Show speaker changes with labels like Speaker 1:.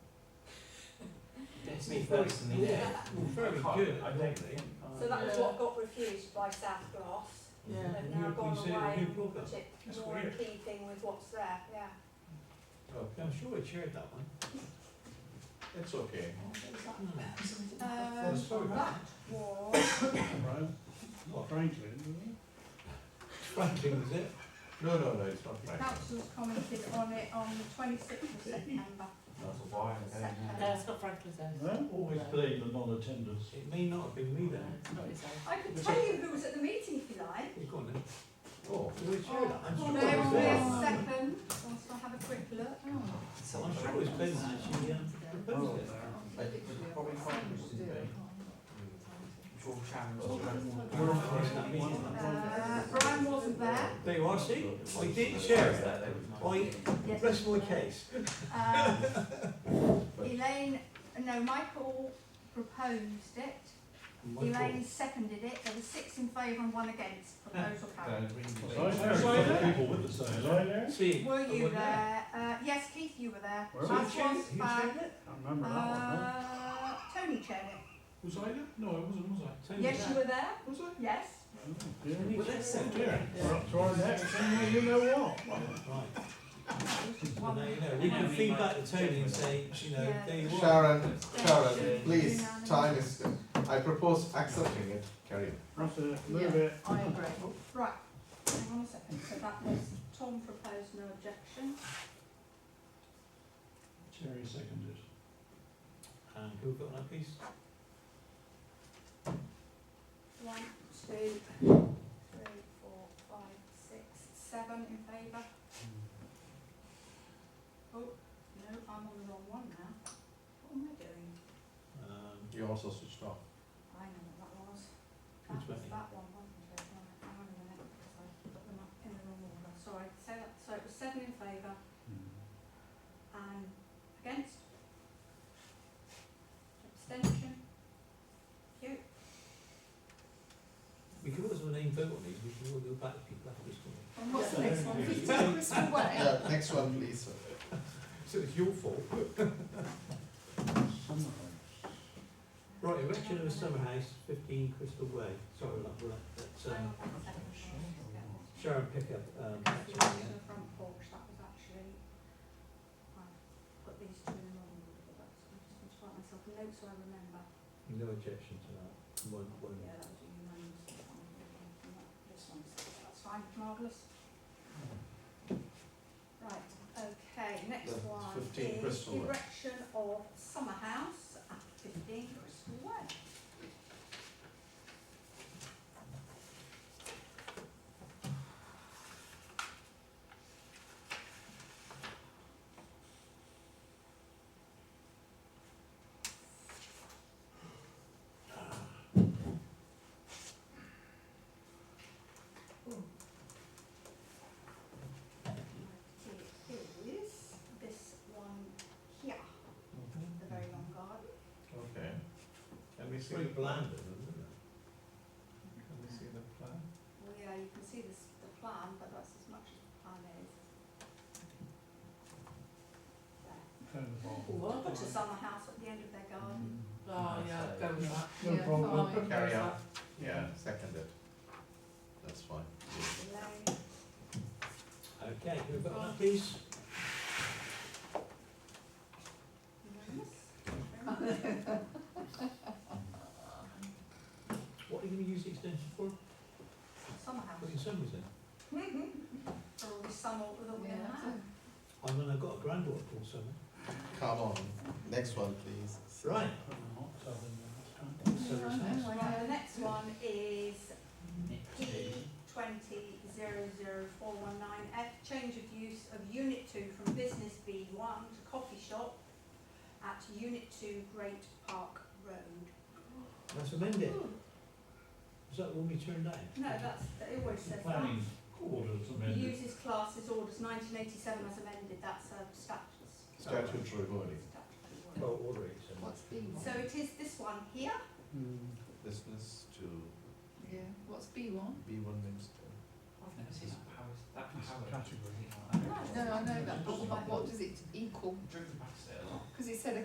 Speaker 1: Smith Wilson, yeah.
Speaker 2: Well, very
Speaker 1: I can't-
Speaker 2: good,
Speaker 1: I don't
Speaker 2: weren't
Speaker 1: think.
Speaker 3: So that was what got refused by South Gloss.
Speaker 2: Yeah.
Speaker 3: They've
Speaker 2: You-
Speaker 3: now
Speaker 2: you
Speaker 3: gone
Speaker 2: said it
Speaker 3: away
Speaker 2: was new
Speaker 3: and
Speaker 2: program.
Speaker 3: put it
Speaker 2: That's
Speaker 3: more in
Speaker 2: weird.
Speaker 3: keeping with what's there,
Speaker 4: Uh,
Speaker 3: yeah.
Speaker 2: Oh, I'm sure we shared that one. Hmm.
Speaker 1: It's okay.
Speaker 3: Um,
Speaker 2: sorry.
Speaker 3: that was,
Speaker 2: What,
Speaker 5: Franklin,
Speaker 2: Franklin was it?
Speaker 1: No, no, no, it's not
Speaker 4: The
Speaker 1: bad.
Speaker 4: council's commented on it on the twenty-sixth of September.
Speaker 1: That's a wire, okay.
Speaker 6: No, Uh, it's not Franklin's house.
Speaker 5: huh?
Speaker 2: Always
Speaker 5: believe the non-attenders.
Speaker 2: It may not have been me
Speaker 6: No,
Speaker 2: then.
Speaker 6: it's not his house.
Speaker 4: I could tell you who was at the meeting if you like.
Speaker 2: You've gone then.
Speaker 1: Oh,
Speaker 2: Did we share that? I'm sure
Speaker 4: There
Speaker 2: it was
Speaker 4: will be a
Speaker 2: there.
Speaker 4: second, once I have a quick look.
Speaker 2: I'm sure it was Ben that actually um, proposed it.
Speaker 1: I think it's probably quite interesting, eh? George Chandler's
Speaker 2: We're on for us, that means, isn't it?
Speaker 4: Uh, Brian wasn't there.
Speaker 2: There you are, see? I didn't share it. I,
Speaker 4: Yes.
Speaker 2: rest my case.
Speaker 4: Um, Elaine, no, Michael proposed it. Elaine seconded it. There were six in favour and one against. Proposal carried.
Speaker 5: Was I there?
Speaker 2: Was I uh, there?
Speaker 5: People with the same. Was I there?
Speaker 2: See,
Speaker 4: Were
Speaker 2: I
Speaker 4: you
Speaker 2: wasn't
Speaker 4: there? Uh, yes, Keith, you were there.
Speaker 5: Where
Speaker 4: I
Speaker 2: Who
Speaker 4: was Oh,
Speaker 2: shared it? Who
Speaker 4: back.
Speaker 2: shared it?
Speaker 5: I remember that one, huh?
Speaker 4: Uh, Tony chaired it.
Speaker 5: Was I there? No, I wasn't, was I?
Speaker 2: Tony
Speaker 4: Yes, you were there.
Speaker 5: Was I?
Speaker 4: Yes.
Speaker 5: Oh, dear.
Speaker 2: Well, that's so good.
Speaker 5: We're up to our neck, somewhere you know what.
Speaker 2: Right. Well,
Speaker 4: One
Speaker 2: now
Speaker 4: week.
Speaker 2: you know, we can
Speaker 6: Yeah.
Speaker 2: feed back to Tony and say, you know,
Speaker 4: Yeah.
Speaker 2: there you are.
Speaker 7: Sharon, Sharon,
Speaker 4: Unanimous.
Speaker 7: please, time is, I propose accepting it, carry on.
Speaker 5: That's it,
Speaker 4: Yeah.
Speaker 5: move it.
Speaker 4: I agree. Right, hang on a second, so that was, Tom proposed no objection.
Speaker 5: Terry seconded.
Speaker 2: And who got that piece?
Speaker 4: One, two, three, four, five, six, seven in favour. Oh, no, I'm on the wrong one now. What am I doing?
Speaker 2: Um,
Speaker 7: You also switched off.
Speaker 4: I know what that was. That
Speaker 2: Which
Speaker 4: was
Speaker 2: way?
Speaker 4: that one, wasn't it? Right, hang on a minute, because I put them up in the wrong order. Sorry, so that, so it was seven in favour
Speaker 5: Mm.
Speaker 4: and against? Abstention? Cute.
Speaker 2: we could always have a name vote on these, we can all go back to people after this one.
Speaker 4: And what's the next one?
Speaker 2: Yeah.
Speaker 4: Crystal Way.
Speaker 7: Yeah, next one, please.
Speaker 2: So it's your fault. Right, erection of a summer house, fifteen Crystal Way, sorry, that, that, that's,
Speaker 4: Hang
Speaker 2: um,
Speaker 4: on one second, I'll get this.
Speaker 2: Sharon Pickup, um,
Speaker 4: That's
Speaker 2: actually,
Speaker 4: the one to
Speaker 2: yeah.
Speaker 4: the front porch, that was actually, I put these two in the wrong order, but that's, I just need to write myself a note so I remember.
Speaker 2: no objection to that, one, one.
Speaker 4: Yeah, that was a unanimous. that one, and that- This one's, that's fine, marvellous. Right, okay, next
Speaker 7: That's
Speaker 4: one
Speaker 7: 15
Speaker 4: is
Speaker 7: Bristol Way.
Speaker 4: erection of summer house at fifteen Bristol Way. It is this one here, the very long garden.
Speaker 7: Okay. Can we
Speaker 2: It's
Speaker 7: see
Speaker 2: very
Speaker 7: the plan?
Speaker 2: bland, isn't
Speaker 7: Can we see the plan?
Speaker 4: Well, yeah, you can see this, the plan, but that's as much as the plan is. There.
Speaker 6: What?
Speaker 4: Put a summer house at the end of their garden.
Speaker 6: Oh, yeah, go with that.
Speaker 5: No
Speaker 6: Yeah,
Speaker 5: problem.
Speaker 6: fine, go with
Speaker 7: Carry on.
Speaker 6: that.
Speaker 7: Yeah, seconded. That's fine.
Speaker 4: Elaine,
Speaker 2: it? Okay, who got that piece?
Speaker 4: unanimous? Thank you very much.
Speaker 2: What are you gonna use the extension for?
Speaker 4: Summer house.
Speaker 2: Putting summaries in?
Speaker 4: For Oh, all the summer that we're gonna
Speaker 6: Yeah.
Speaker 4: have.
Speaker 2: I mean, I've got a granddaughter called Summer.
Speaker 7: Come on, next one, please.
Speaker 2: Right.
Speaker 6: Yeah, I know, I
Speaker 4: Right, the
Speaker 6: know.
Speaker 4: next one is P twenty zero zero four one nine F, change of use of unit two from business B one to coffee shop at unit two Great Park Road.
Speaker 2: That's amended. Is that when we turned down?
Speaker 4: No, that's, it always says that.
Speaker 5: Planning orders amended.
Speaker 4: Uses classes orders nineteen eighty seven as amended, that's a statute.
Speaker 7: Statutory body,
Speaker 4: statutory word.
Speaker 2: Oh, order it, so.
Speaker 6: What's B one?
Speaker 4: So it is this one here,
Speaker 7: business to
Speaker 6: Yeah, what's B one?
Speaker 7: B one Minster.
Speaker 6: No, I know, but what does it equal? Because it said a